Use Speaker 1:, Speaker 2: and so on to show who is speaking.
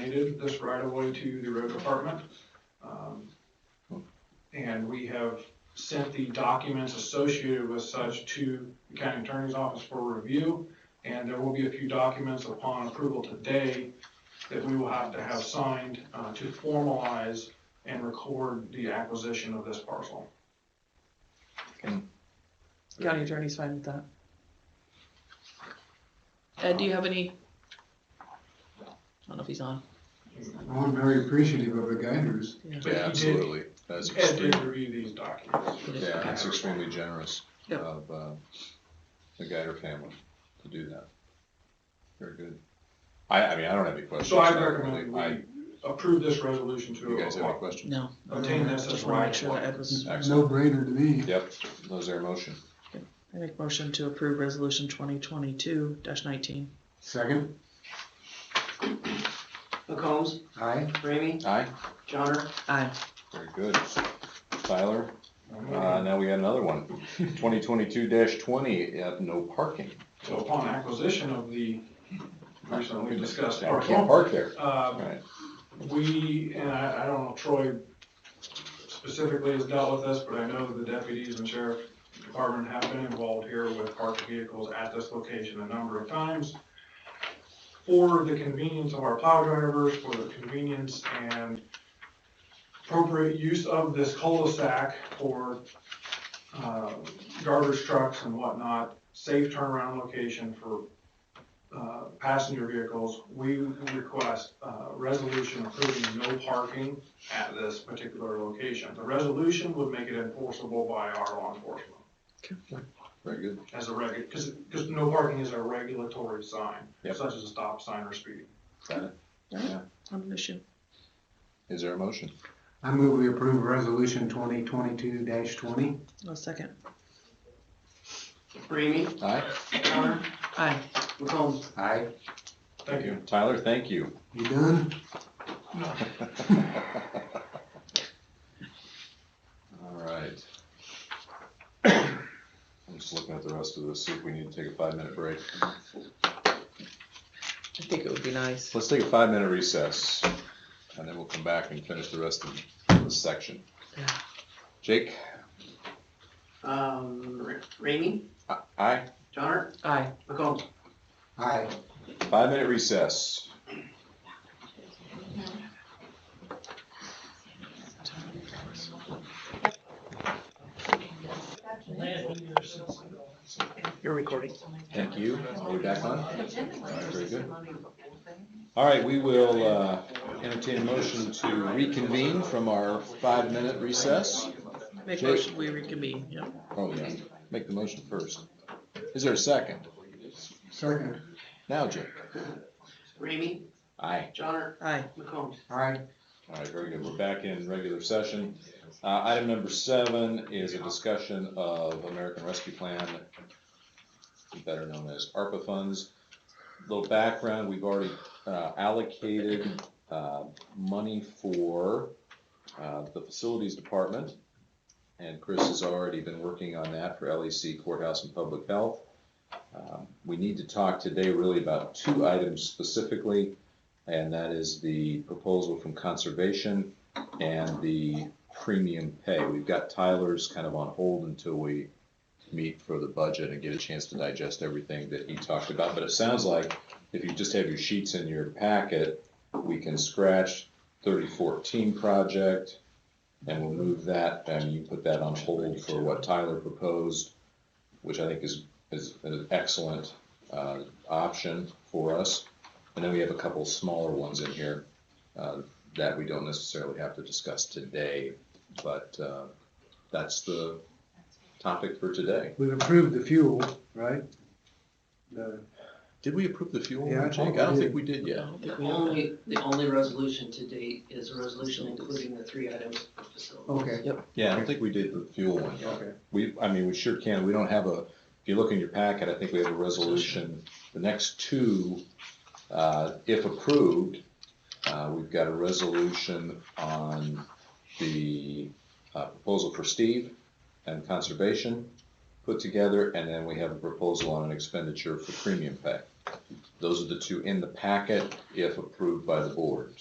Speaker 1: dedicated this right of way to the road department. Um, And we have sent the documents associated with such to the county attorney's office for review. And there will be a few documents upon approval today that we will have to have signed uh, to formalize and record the acquisition of this parcel.
Speaker 2: County attorney's fine with that. Ed, do you have any? I don't know if he's on.
Speaker 3: I'm very appreciative of the guiders.
Speaker 1: But
Speaker 4: Yeah,
Speaker 1: he did-
Speaker 4: absolutely. That's
Speaker 1: Ed did
Speaker 4: extremely,
Speaker 1: review these documents.
Speaker 4: yeah, that's extremely generous
Speaker 2: Yep.
Speaker 4: of, uh, the Geiger family to do that. Very good. I, I mean, I don't have any questions.
Speaker 1: So I
Speaker 4: don't
Speaker 1: recommend
Speaker 4: really- I-
Speaker 1: we approve this resolution
Speaker 4: You guys have any
Speaker 1: to
Speaker 4: questions?
Speaker 2: No. Uh,
Speaker 1: obtain this as
Speaker 2: Just wanna
Speaker 1: right
Speaker 2: make
Speaker 1: of
Speaker 2: sure that
Speaker 1: way.
Speaker 2: Ed was,
Speaker 3: No
Speaker 4: Excellent.
Speaker 3: brainer to me.
Speaker 4: Yep, those are motion.
Speaker 2: I make motion to approve resolution twenty twenty-two nineteen.
Speaker 3: Second?
Speaker 5: McCombs,
Speaker 3: Aye.
Speaker 5: Ramey,
Speaker 4: Aye,
Speaker 5: Johnner,
Speaker 2: Aye.
Speaker 4: very good. Tyler, uh, now we got another one. Twenty twenty-two twenty, uh, no parking.
Speaker 1: So upon acquisition of the recently discussed
Speaker 4: Yeah, we can't
Speaker 1: parcel,
Speaker 4: park there.
Speaker 1: uh,
Speaker 4: Right,
Speaker 1: we, and I, I don't know, Troy specifically has dealt with this, but I know the deputies and sheriff department have been involved here with parked vehicles at this location a number of times. For the convenience of our plow drivers, for the convenience and appropriate use of this cul-de-sac for, uh, garbage trucks and whatnot, safe turnaround location for, uh, passenger vehicles, we request, uh, resolution approving no parking at this particular location. The resolution would make it enforceable by our law enforcement
Speaker 4: very good.
Speaker 1: as a regu, because, because no parking is a regulatory sign,
Speaker 4: Yep.
Speaker 1: such as a stop sign or speeding.
Speaker 4: Got it. Yeah.
Speaker 2: On an issue.
Speaker 4: Is there a motion?
Speaker 3: I move we approve resolution twenty twenty-two twenty.
Speaker 2: No second.
Speaker 5: Ramey,
Speaker 4: Aye?
Speaker 5: Johnner,
Speaker 2: Aye.
Speaker 5: McCombs.
Speaker 3: Aye.
Speaker 1: Thank you.
Speaker 4: Tyler, thank you.
Speaker 3: You done?
Speaker 4: All right. I'm just looking at the rest of this, see if we need to take a five-minute break.
Speaker 2: I think it would be nice.
Speaker 4: Let's take a five-minute recess, and then we'll come back and finish the rest of this section.
Speaker 2: Yeah.
Speaker 4: Jake,
Speaker 5: Um, Ra- Ramey,
Speaker 4: a- aye,
Speaker 5: Johnner,
Speaker 2: Aye.
Speaker 5: McCombs.
Speaker 3: Aye.
Speaker 4: five-minute recess.
Speaker 2: You're recording.
Speaker 4: Thank you. Are we back on? All right, very good. All right, we will uh, entertain a motion to reconvene from our five-minute recess.
Speaker 2: Make
Speaker 4: Jake.
Speaker 2: motion, we reconvene, yeah.
Speaker 4: Oh, yeah, make the motion first. Is there a second?
Speaker 3: Second?
Speaker 4: Now, Jake.
Speaker 5: Ramey,
Speaker 4: Aye.
Speaker 5: Johnner,
Speaker 2: Aye.
Speaker 5: McCombs.
Speaker 3: Aye.
Speaker 4: All right, very good. We're back in regular session. Uh, item number seven is a discussion of American Rescue Plan, better known as ARPA funds. Little background, we've already, uh, allocated, uh, money for, uh, the facilities department. And Chris has already been working on that for LEC courthouse and public health. Um, We need to talk today really about two items specifically and that is the proposal from conservation and the premium pay. We've got Tyler's kind of on hold until we meet for the budget and get a chance to digest everything that he talked about, but it sounds like if you just have your sheets in your packet, we can scratch thirty fourteen project, and we'll move that, and you put that on hold for what Tyler proposed, which I think is, is an excellent, uh, option for us. And then we have a couple smaller ones in here uh, that we don't necessarily have to discuss today, but uh, that's the topic for today.
Speaker 3: We've approved the fuel, right? The,
Speaker 4: Did we approve the fuel?
Speaker 3: Yeah, I
Speaker 4: Jake?
Speaker 3: think
Speaker 4: I don't
Speaker 3: we
Speaker 4: think we did
Speaker 2: I
Speaker 4: yet.
Speaker 2: don't
Speaker 5: The
Speaker 2: think we have that.
Speaker 5: only, the only resolution to date is a resolution including the three items for facility.
Speaker 3: okay,
Speaker 4: Yeah, I don't think we did the fuel one yet.
Speaker 3: okay.
Speaker 4: We, I mean, we sure can. We don't have a, if you look in your packet, I think we have a resolution. The next two, uh, if approved, uh, we've got a resolution on the uh, proposal for Steve and conservation put together, and then we have a proposal on an expenditure for premium pay. Those are the two in the packet if approved by the board.